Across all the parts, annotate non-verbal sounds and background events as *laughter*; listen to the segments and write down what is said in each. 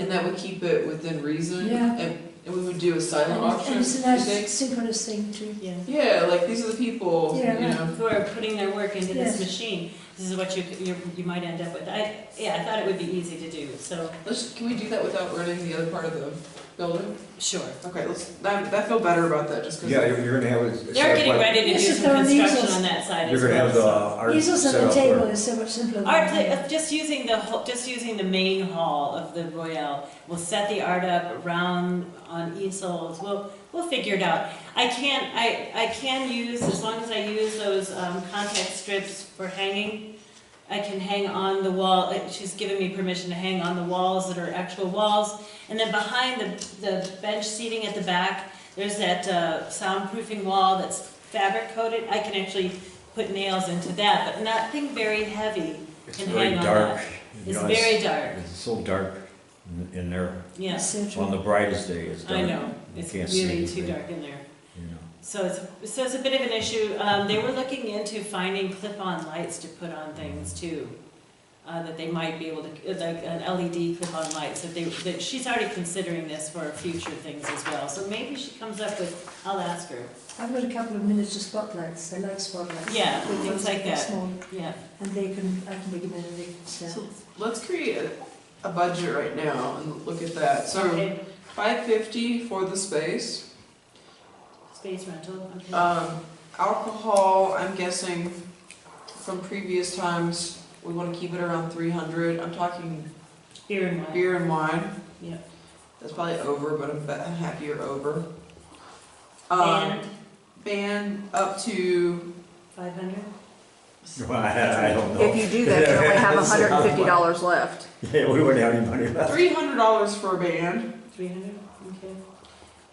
and that would keep it within reason. Yeah. And, and we would do a silent auction, And you it's a nice think? synchronous thing too. Yeah. Yeah, like these are the people, you Yeah, right. know. Who are putting their work into Yes. this machine, this is what you, you, you might end up with. I, yeah, I thought it would be easy to do, so, Let's, can we do that without burning the other part of the building? sure. Okay, let's, that, that feel better about that, just because. Yeah, you're you're gonna have. a- They're getting ready to Yes, do it's some their construction measles. on that side You're as gonna have the well. art Easels set on the up table where. is so much simpler. so. than- Art, pla- uh, just using the, whole- just using the main hall of the Royale, we'll set the art up around on easels, we'll, we'll figure it out. I can't, I, I can use, as long as I use those um, contact strips for hanging, I can hang on the wall, uh, she's given me permission to hang on the walls that are actual walls. And then behind the, the bench seating at the back, there's that uh, soundproofing wall that's fabric coated. I can actually put nails into that, but nothing very heavy. It's can very hang on dark. you It's know, very dark, It's so dark in- in there, yes, So on true. the brightest day, it's dark. I know, You it's can't see really too anything, dark in there. you know. *laughs* So it's, so it's a bit of an issue. Um, they were looking into finding clip-on lights to put on things too. Uh, that they might be able to, like an LED clip-on light, so they, that she's already considering this for future things as well. So maybe she comes up with, I'll ask her, I've got a couple of miniature spotlights, I like spotlights. Yeah, Big things ones, like that. Small, yeah. and they can, I can make them in a big set. So let's create a, a budget right now and look at that. So Okay, five fifty for the space. Space rental, okay. Um, alcohol, I'm guessing from previous times, we want to keep it around three hundred. I'm talking Beer and wine. Beer and wine. Yeah. That's probably over, but I'm bet- I'm happier over. Um, And band up to, five hundred? Well, I I don't know. If you do that, you *laughs* only have It's a hundred and fifty lot. dollars left. *laughs* Yeah, we wouldn't have any money left. three hundred dollars for a band. Three hundred, okay.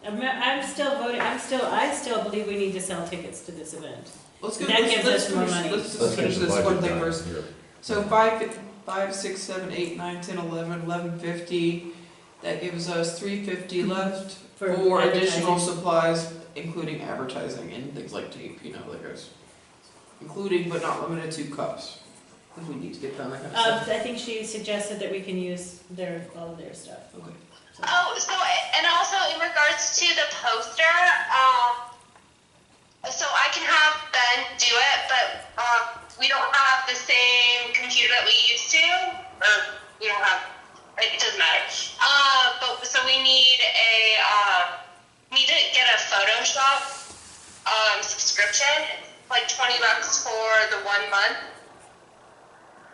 I'm, I'm still voting, I'm still, I still believe we need to sell tickets to this event. Let's go, That let's, gives let's us more finish, money. let's Let's just get finish the this budget one thing done first. here. So five, fif- five, six, seven, eight, nine, ten, eleven, eleven fifty. That gives us three fifty left for additional advertising. supplies, including advertising and things like tape, you know, like those. Including but not limited to cups, if we need to get done that kind of Uh, stuff. I think she suggested that we can use their, all of their stuff. Okay. Oh, so and also in regards to the poster, um, so I can have Ben do it, but um, we don't have the same computer that we used to, or we don't have. It doesn't matter. Uh, but so we need a uh, need to get a Photoshop um, subscription, like twenty bucks for the one month.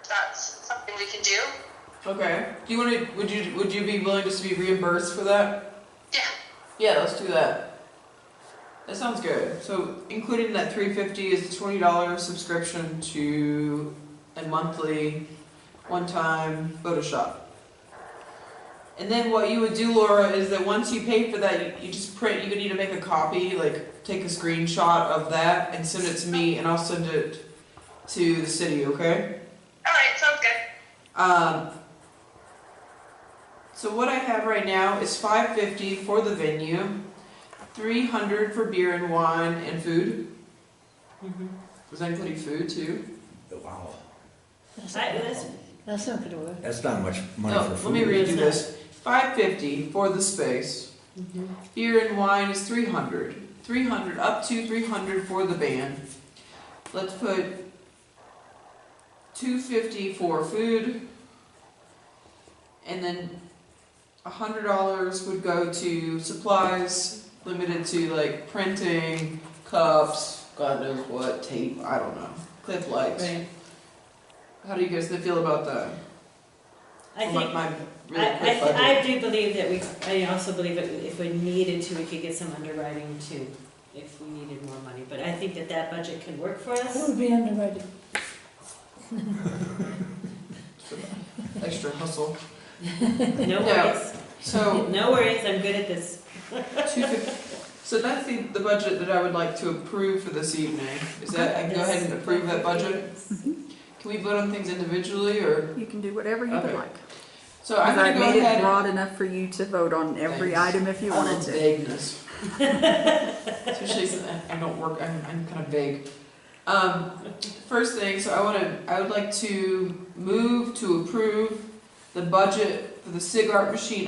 That's something we can do. Okay. Do you want to? Would you? Would you be willing just to be reimbursed for that? Yeah. Yeah, let's do that. That sounds good. So, including that three fifty is the twenty dollar subscription to a monthly, one time Photoshop. And then what you would do, Laura, is that once you pay for that, you, you just print. You would need to make a copy, like take a screenshot of that and send it to me, and I'll send it to the city. Okay. All right, sounds good. Um, so what I have right now is five fifty for the venue, three hundred for beer and wine and food. Mm-hmm. Mhm. Was that including food too? Wow, That's I, not- that's, That's not gonna work. that's not much money no, for let me food. redo this. Five fifty for the space. Beer and wine is three hundred. Three hundred up to three hundred for the band. Let's put two fifty for food. And then a hundred dollars would go to supplies limited to like printing, cups, God knows what, tape, I don't know. Clip lights. right. How do you guys feel about that? I My- think, my really I, I, quick budget. th- I do believe that we, I also believe that if we needed to, we could get some underwriting too, if we needed more money. But I think that that budget can work for That *laughs* us. would be underrated. extra hustle. No Yeah. worries, So no worries, I'm good at this. two fifty. So that's the, the budget that I would like to approve for this evening. Is that I can go ahead and approve that budget? Can we vote on things individually or? You can do whatever you would Okay. like. So I'm gonna I've go made it ahead. broad enough for you to vote on every Thanks. item if you I love wanted to. *laughs* Vagueness. Especially since I I don't work. I'm I'm kind of vague. Um, first thing. So I want to. I would like to move to approve the budget for the cigarette machine